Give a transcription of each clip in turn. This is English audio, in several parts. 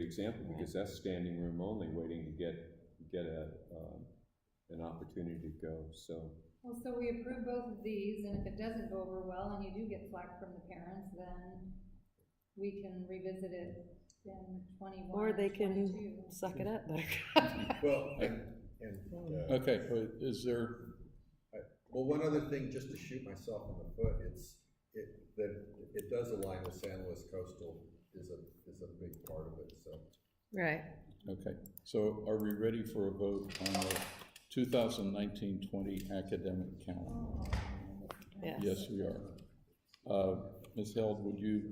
example, because that's standing room only, waiting to get, get a, um, an opportunity to go, so. Well, so we approve both of these, and if it doesn't go over well, and you do get flack from the parents, then we can revisit it in twenty-one Or or they can- twenty-two. Suck it up, Buttercup. Well, and, and, uh, Okay, but is there, well, one other thing, just to shoot myself in the foot, it's, it, that, it does align with San Luis Coastal is a, is a big part of it, so. Right. okay, so are we ready for a vote on the 2019-20 academic calendar? Yes. Yes, we are. Uh, Ms. Held, would you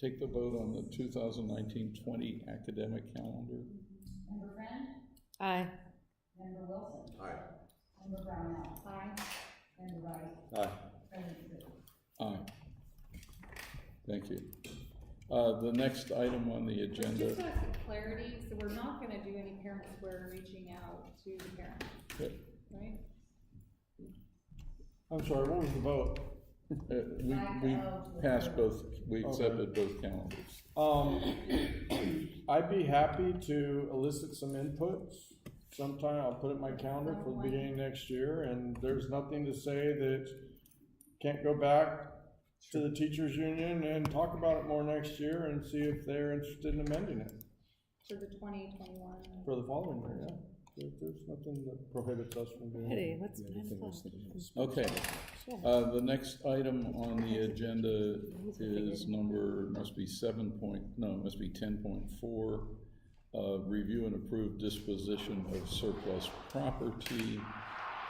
take the vote on the 2019-20 academic calendar? Member Friend, Aye. Member Wilson, Aye. Member Brownell, Aye. Member Wright, Aye. President Tru. Aye. Thank you. Uh, The next item on the But agenda, Just so I see clarity, so we're not gonna do any parent square reaching out to the parents, right? I'm sorry, what was the vote? Uh, we, we passed both, we accepted both calendars. Um, I'd be happy to elicit some inputs sometime, I'll put it in my calendar for the beginning of next year, and there's nothing to say that can't go back to the teachers' union and talk about it more next year and see if they're interested in amending it For the twenty twenty-one. for the following year, yeah. There- There's nothing that prohibits us from doing it. Hey, what's Oh, nine o'clock? Okay, uh, the next item on the agenda is number, must be seven point, no, it must be ten point four. Uh, review and approve disposition of surplus property.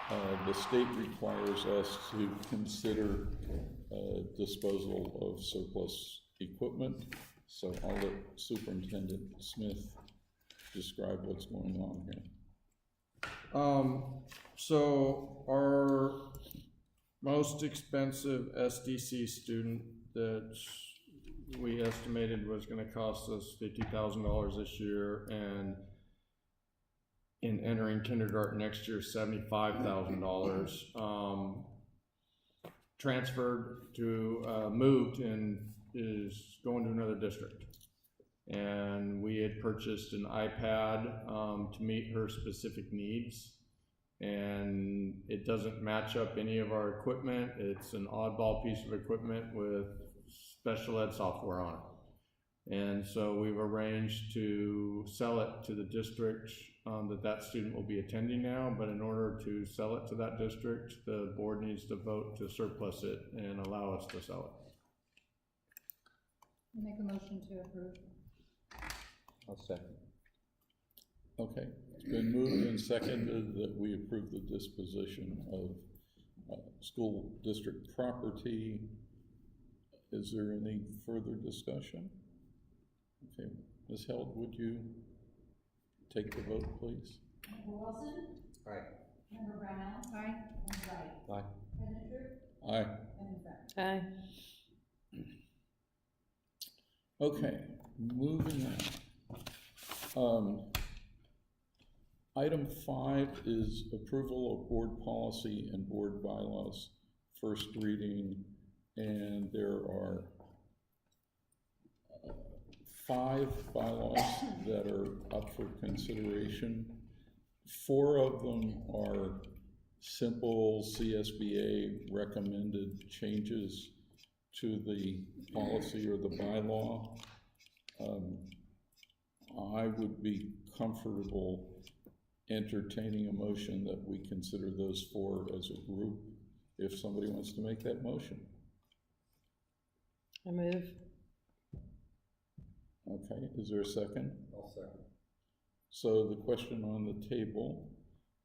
Uh, the state requires us to consider, uh, disposal of surplus equipment. So I'll let Superintendent Smith describe what's going on here. Um, so our most expensive SDC student that we estimated was gonna cost us fifty thousand dollars this year and in entering kindergarten next year, seventy-five thousand dollars, um, transferred to, uh, moved and is going to another district and we had purchased an iPad um, to meet her specific needs. And it doesn't match up any of our equipment. It's an oddball piece of equipment with special ed software on it. And so we've arranged to sell it to the district um, that that student will be attending now. But in order to sell it to that district, the board needs to vote to surplus it and allow us to sell it. Make a motion to approve. I'll second. Okay, it's been moved and seconded that we approve the disposition of uh, school district property. Is there any further discussion? Okay, Ms. Held, would you take the vote, please? Member Wilson, Aye. Member Brownell, Aye. Member Wright, Aye. President Tru, Aye. Member Friend. Aye. Okay, moving on. Um, Item five is approval of board policy and board bylaws, first reading, and there are uh, five bylaws that are up for consideration. Four of them are simple CSBA recommended changes to the policy or the bylaw. Um, I would be comfortable entertaining a motion that we consider those four as a group, if somebody wants to make that motion. I move. Okay, is there a second? I'll second. So the question on the table,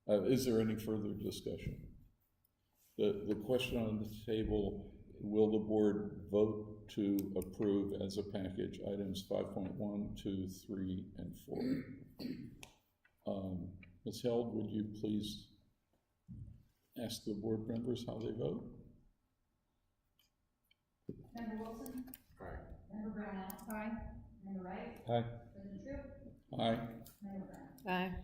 uh, is there any further discussion? The, the question on the table, will the board vote to approve as a package items five point one, two, three, and four? Um, Ms. Held, would you please ask the board members how they vote? Member Wilson, Aye. Member Brownell, Aye. Member Wright, Aye. President Tru, Aye. Member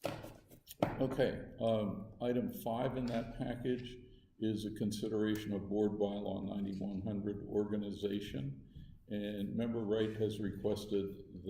Brown. Aye. Okay, um, item five in that package is a consideration of board bylaw ninety-one hundred organization. And member Wright has requested